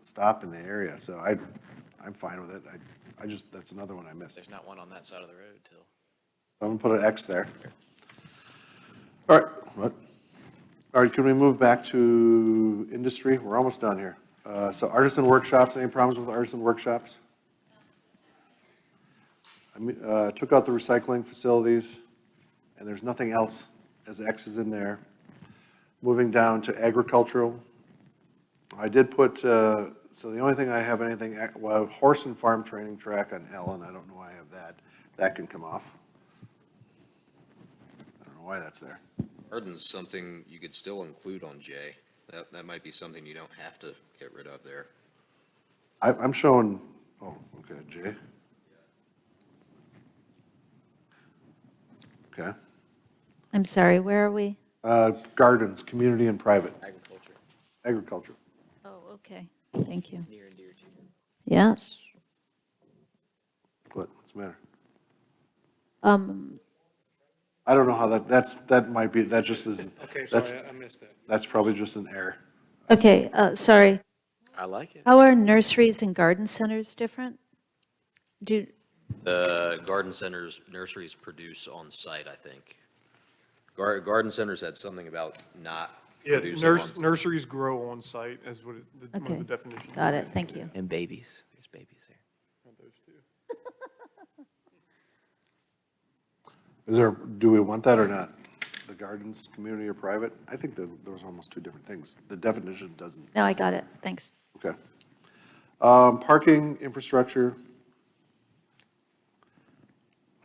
stopped in the area, so I, I'm fine with it. I, I just, that's another one I missed. There's not one on that side of the road till. I'm gonna put an X there. All right, what? All right, can we move back to industry? We're almost done here. Uh, So artisan workshops, any problems with artisan workshops? I mean, uh, took out the recycling facilities, and there's nothing else as X is in there. Moving down to agricultural. I did put, uh, so the only thing I have anything, ac- well, horse and farm training track on Ellen, I don't know why I have that. That can come off. I don't know why that's there. Garden's something you could still include on J. That, that might be something you don't have to get rid of there. I, I'm showing, oh, okay, Jay. Okay, I'm sorry, where are we? uh, gardens, community and private, Agriculture, agriculture. Oh, okay, thank you. near and dear to you. Yes. What, what's the matter? Um, I don't know how that, that's, that might be, that just is, Okay, that's, sorry, I- I missed that. that's probably just an error. okay, uh, sorry. I like it. How are nurseries and garden centers different? Do, The Uh, garden centers, nurseries produce on-site, I think. Gar, garden centers had something about not Yeah, producing nurs- on. nurseries grow on site is what, it- the- one okay, of the definitions. got it, thank you. And babies, there's babies there. Is there, do we want that or not? The gardens, community or private? I think that those are almost two different things. The definition doesn't, No, I got it, thanks. okay. Um, parking, infrastructure.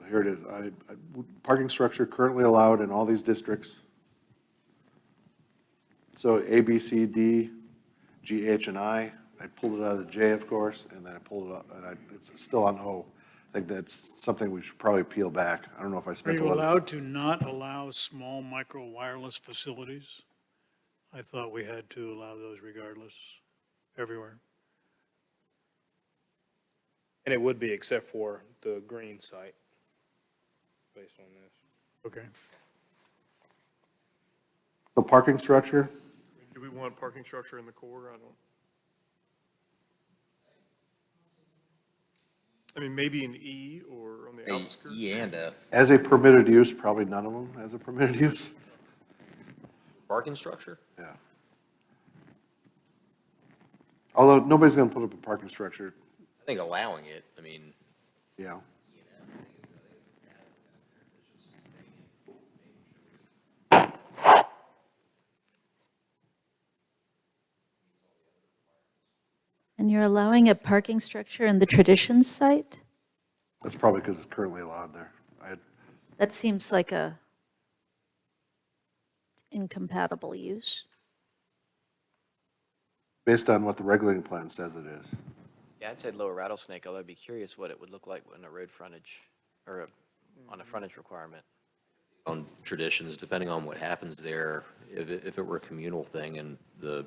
Here it is. I, I- parking structure currently allowed in all these districts. So A, B, C, D, G, H, and I. I pulled it out of the J, of course, and then I pulled it up, and I, it's still on O. I think that's something we should probably peel back. I don't know if I Are spent a you lot of. allowed to not allow small micro wireless facilities? I thought we had to allow those regardless, everywhere. And it would be except for the green site, based on this. Okay. The parking structure, Do we want parking structure in the core? I don't. I mean, maybe in E or on the A- outskirts? E and F. as a permitted use, probably none of them as a permitted use. Parking structure? Yeah. Although, nobody's gonna put up a parking structure, I think allowing it, I mean, yeah. And you're allowing a parking structure in the traditions site? That's probably because it's currently allowed there. I, That seems like a incompatible use. based on what the regulating plan says it is. Yeah, I'd say lower rattlesnake, although I'd be curious what it would look like on a road frontage, or a- on a frontage requirement. on traditions, depending on what happens there, if, it- if it were a communal thing and the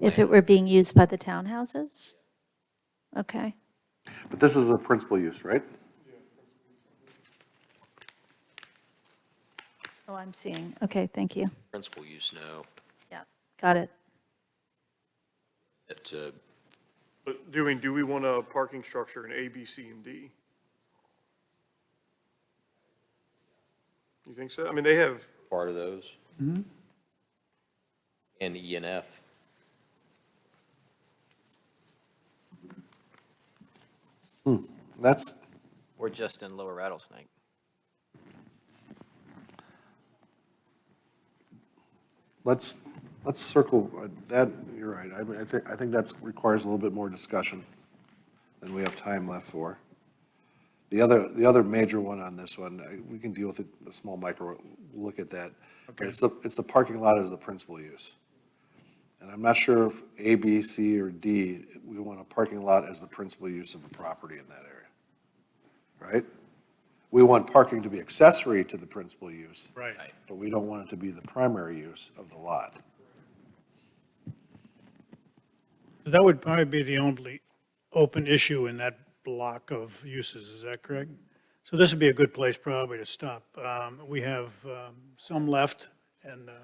If it were being used by the townhouses? Okay, But this is a principal use, right? oh, I'm seeing, okay, thank you. principal use, no, Yeah, got it. that, uh, But doing, do we want a parking structure in A, B, C, and D? You think so? I mean, they have, part of those. And E and F. That's, Or just in lower rattlesnake. let's, let's circle, uh, that, you're right. I, mean, I think, I think that's requires a little bit more discussion than we have time left for. The other, the other major one on this one, I- we can deal with it, the small micro, look at that. But It's the, it's the parking lot as the principal use. And I'm not sure if A, B, C, or D, we want a parking lot as the principal use of a property in that area. Right? We want parking to be accessory to the principal use Right. but we don't want it to be the primary use of the lot. That would probably be the only open issue in that block of uses, is that correct? So this would be a good place probably to stop. Um, We have um, some left, and uh,